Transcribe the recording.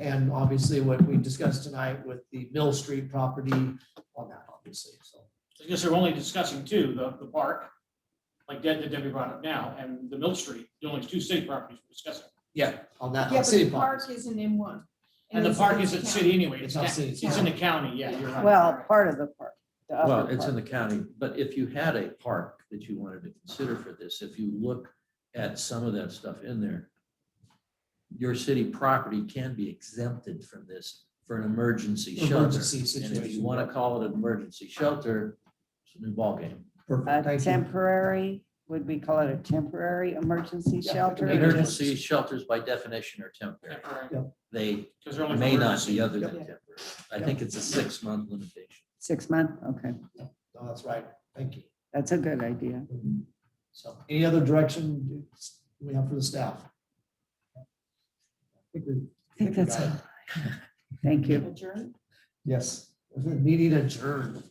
And obviously what we discussed tonight with the Mill Street property on that, obviously, so. I guess they're only discussing two, the, the park, like Deb, that Debbie brought up now, and the Mill Street, the only two state properties we're discussing. Yeah, on Yeah, but that, on Uh, the city property. park isn't in one. And the it's- park it's isn't a city anyway, it's, It's not ca- city, it's in the county, yeah, you're right. Well, part of the park. the upper Well, it's in part. the county, but if you had a park that you wanted to consider for this, if you look at some of that stuff in there, your city property can be exempted from this for an emergency shelter. Emergency And if you situation. want to call it an emergency shelter, it's a new ballgame. Perfect, A thank you. temporary, would we call it a temporary emergency Yeah, shelter? Very good. Emergency shelters by definition are temporary. They Because they're only. may for not emergency. be other than Yeah. temporary. I think it's a six-month limitation. Six month, okay, No, that's right, thank you. that's a good idea. So any other direction we have for the staff? I think we- I think that's, we got it. thank you. Adjourn? Yes, meeting adjourned.